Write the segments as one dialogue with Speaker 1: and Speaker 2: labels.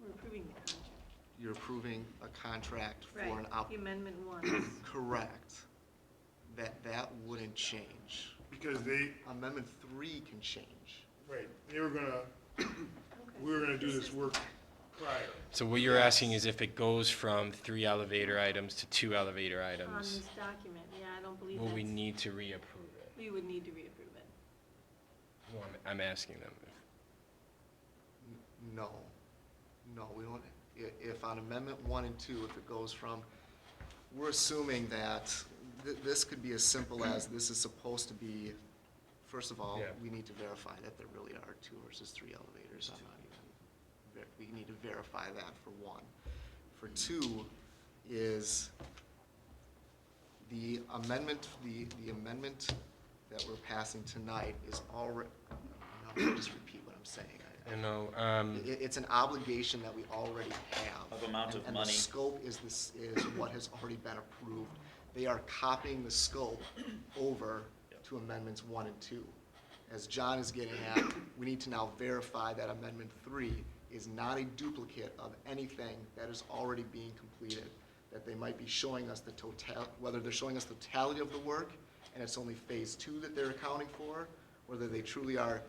Speaker 1: We're approving the contract.
Speaker 2: You're approving a contract for an
Speaker 1: Right,
Speaker 2: op,
Speaker 1: the amendment one.
Speaker 2: correct. That, that wouldn't change.
Speaker 3: Because they,
Speaker 2: Amendment three can change.
Speaker 3: right, they were gonna, we were gonna do this work prior.
Speaker 4: So what you're asking is if it goes from three elevator items to two elevator
Speaker 1: On this
Speaker 4: items,
Speaker 1: document, yeah, I don't believe
Speaker 4: will we
Speaker 1: that's,
Speaker 4: need to reapprove it?
Speaker 1: we would need to reapprove it.
Speaker 4: Well, I'm- I'm asking them.
Speaker 2: N- No, no, we don't, i- if on amendment one and two, if it goes from, we're assuming that th- this could be as simple as this is supposed to be, first of all,
Speaker 4: Yeah.
Speaker 2: we need to verify that there really are two versus three elevators. I'm not even, ver- we need to verify that for one. For two is the amendment, the, the amendment that we're passing tonight is already, I'll just repeat what I'm saying. I-
Speaker 4: I know, um,
Speaker 2: it, it's an obligation that we already have.
Speaker 5: Of amount
Speaker 2: And-
Speaker 5: of
Speaker 2: And the
Speaker 5: money.
Speaker 2: scope is this, is what has already been approved. They are copying the scope over to amendments one and two. As John is getting at, we need to now verify that amendment three is not a duplicate of anything that is already being completed. That they might be showing us the total, whether they're showing us the totality of the work, and it's only phase two that they're accounting for, whether they truly are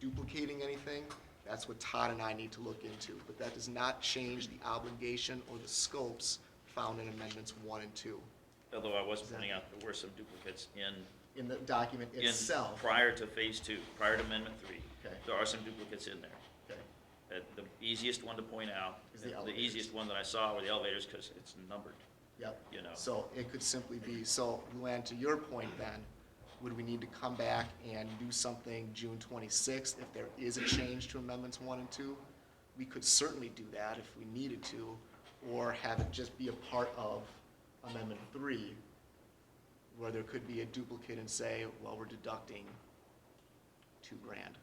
Speaker 2: duplicating anything, that's what Todd and I need to look into. But that does not change the obligation or the scopes found in amendments one and two
Speaker 5: Although I was pointing out there were some duplicates in,
Speaker 2: in the document
Speaker 5: in,
Speaker 2: itself.
Speaker 5: prior to phase two, prior to amendment three.
Speaker 2: Okay.
Speaker 5: There are some duplicates in there.
Speaker 2: Okay.
Speaker 5: Uh, The easiest one to point out,
Speaker 2: Is the
Speaker 5: the
Speaker 2: elevators.
Speaker 5: easiest one that I saw were the elevators because it's numbered.
Speaker 2: Yep.
Speaker 5: You know.
Speaker 2: So it could simply be, so Luann, to your point then, would we need to come back and do something June twenty-sixth if there is a change to amendments one and two? We could certainly do that if we needed to, or have it just be a part of amendment three, where there could be a duplicate and say, well, we're deducting two grand,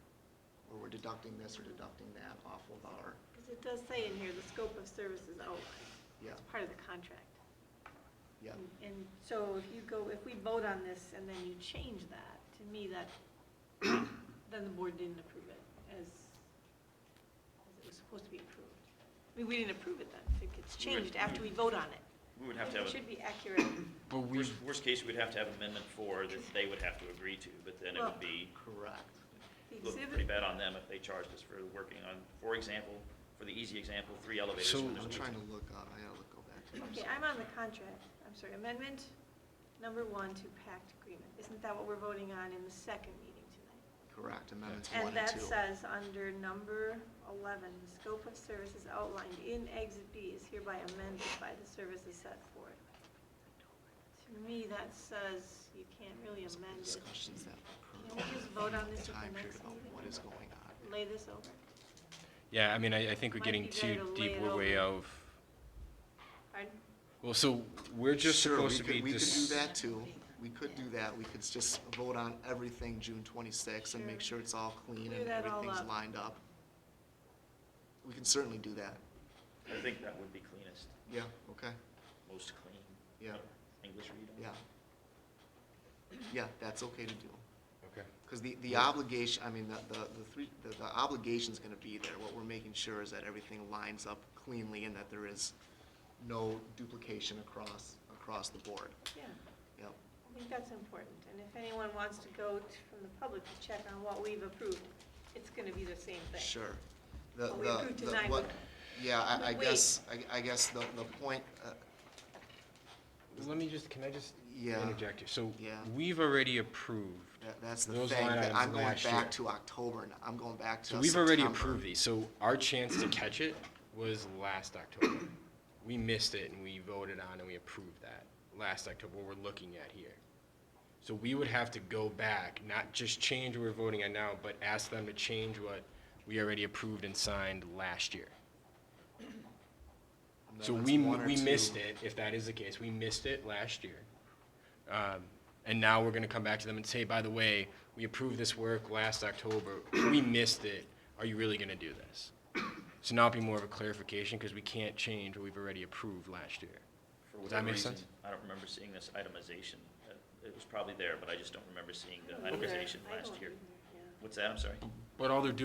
Speaker 2: or we're deducting this or deducting that off of our,
Speaker 1: Because it does say in here, the scope of services outlined.
Speaker 2: yeah,
Speaker 1: It's part of the contract.
Speaker 2: yeah.
Speaker 1: And- And so if you go, if we vote on this and then you change that, to me, that, then the board didn't approve it as, as it was supposed to be approved. I mean, we didn't approve it then, if it gets
Speaker 5: We would-
Speaker 1: changed after we vote on it.
Speaker 5: We would have to
Speaker 1: It
Speaker 5: have,
Speaker 1: should be accurate.
Speaker 4: but
Speaker 5: a-
Speaker 4: we,
Speaker 5: worst, worst case, we'd have to have amendment four that they would have to agree to, but then it
Speaker 1: Well-
Speaker 5: would be,
Speaker 2: Correct.
Speaker 1: The
Speaker 5: look
Speaker 1: exhibit-
Speaker 5: pretty bad on them if they charged us for working on, for example, for the easy example, three elevators.
Speaker 4: So-
Speaker 5: when there's
Speaker 2: I'm
Speaker 5: two.
Speaker 2: trying to look up, I gotta look, go back to.
Speaker 1: Okay, I'm on the contract. I'm sorry, amendment number one to pact agreement. Isn't that what we're voting on in the second meeting tonight?
Speaker 2: Correct, amendments
Speaker 1: And
Speaker 2: one and
Speaker 1: that
Speaker 2: two.
Speaker 1: says under number 11, the scope of services outlined in Exhibit B is hereby amended by the services set forth. To me, that says you can't really amend it.
Speaker 2: Discussions that occur
Speaker 1: Can we just vote on this at the
Speaker 2: time period
Speaker 1: next
Speaker 2: about
Speaker 1: meeting?
Speaker 2: what is going on.
Speaker 1: Lay this over.
Speaker 4: yeah, I mean, I, I think we're
Speaker 1: Might
Speaker 4: getting
Speaker 1: be better to
Speaker 4: too
Speaker 1: lay
Speaker 4: deep,
Speaker 1: it
Speaker 4: we're way
Speaker 1: over.
Speaker 4: out.
Speaker 1: Pardon?
Speaker 4: Well, so we're just
Speaker 2: Sure, we
Speaker 4: supposed to
Speaker 2: could-
Speaker 4: be
Speaker 2: We could do
Speaker 4: just,
Speaker 2: that too. We could do that. We could just vote on everything June twenty-sixth and make
Speaker 1: Sure.
Speaker 2: sure it's all clean
Speaker 1: Clear
Speaker 2: and
Speaker 1: that all
Speaker 2: everything's
Speaker 1: up.
Speaker 2: lined up. We can certainly do that.
Speaker 5: I think that would be cleanest,
Speaker 2: Yeah, okay,
Speaker 5: most clean.
Speaker 2: Yeah.
Speaker 5: English read on it.
Speaker 2: yeah. Yeah, that's okay to do.
Speaker 4: Okay.
Speaker 2: Because the, the obligation, I mean, the, the, the three, the, the obligation's gonna be there. What we're making sure is that everything lines up cleanly and that there is no duplication across, across the board.
Speaker 1: Yeah,
Speaker 2: Yep.
Speaker 1: I think that's important. And if anyone wants to go t- from the public to check on what we've approved, it's going to be the same thing.
Speaker 2: Sure. The,
Speaker 1: What we
Speaker 2: the-
Speaker 1: approved
Speaker 2: the-
Speaker 1: tonight
Speaker 2: what-
Speaker 1: would-
Speaker 2: Yeah,
Speaker 1: would
Speaker 2: I, I
Speaker 1: wait.
Speaker 2: guess, I, I guess the, the point, uh,
Speaker 4: let me just, can I just
Speaker 2: Yeah.
Speaker 4: interject here? So
Speaker 2: Yeah.
Speaker 4: we've already approved
Speaker 2: that, that's the
Speaker 4: Those
Speaker 2: thing,
Speaker 4: line
Speaker 2: that
Speaker 4: items
Speaker 2: I'm going
Speaker 4: last year.
Speaker 2: back to October, now. I'm going back to
Speaker 4: So we've already
Speaker 2: September.
Speaker 4: approved these, so our chance to catch it was last October. We missed it and we voted on and we approved that last October, what we're looking at here. So we would have to go back, not just change what we're voting on now, but ask them to change what we already approved and signed last year.
Speaker 2: And then
Speaker 4: So
Speaker 2: it's
Speaker 4: we,
Speaker 2: one or
Speaker 4: we missed
Speaker 2: two.
Speaker 4: it, if that is the case, we missed it last year. Um, And now we're gonna come back to them and say, by the way, we approved this work last October, we missed it, are you really gonna do this? So now it'd be more of a clarification, because we can't change what we've already approved last year.
Speaker 5: For
Speaker 4: Does that
Speaker 5: whatever
Speaker 4: make
Speaker 5: reason,
Speaker 4: sense?
Speaker 5: I don't remember seeing this itemization. Uh, It was probably there, but I just don't remember seeing the
Speaker 1: Okay.
Speaker 5: itemization
Speaker 1: I
Speaker 5: last
Speaker 1: don't
Speaker 5: year.
Speaker 1: either, yeah.
Speaker 5: What's that? I'm sorry.
Speaker 4: But all they're doing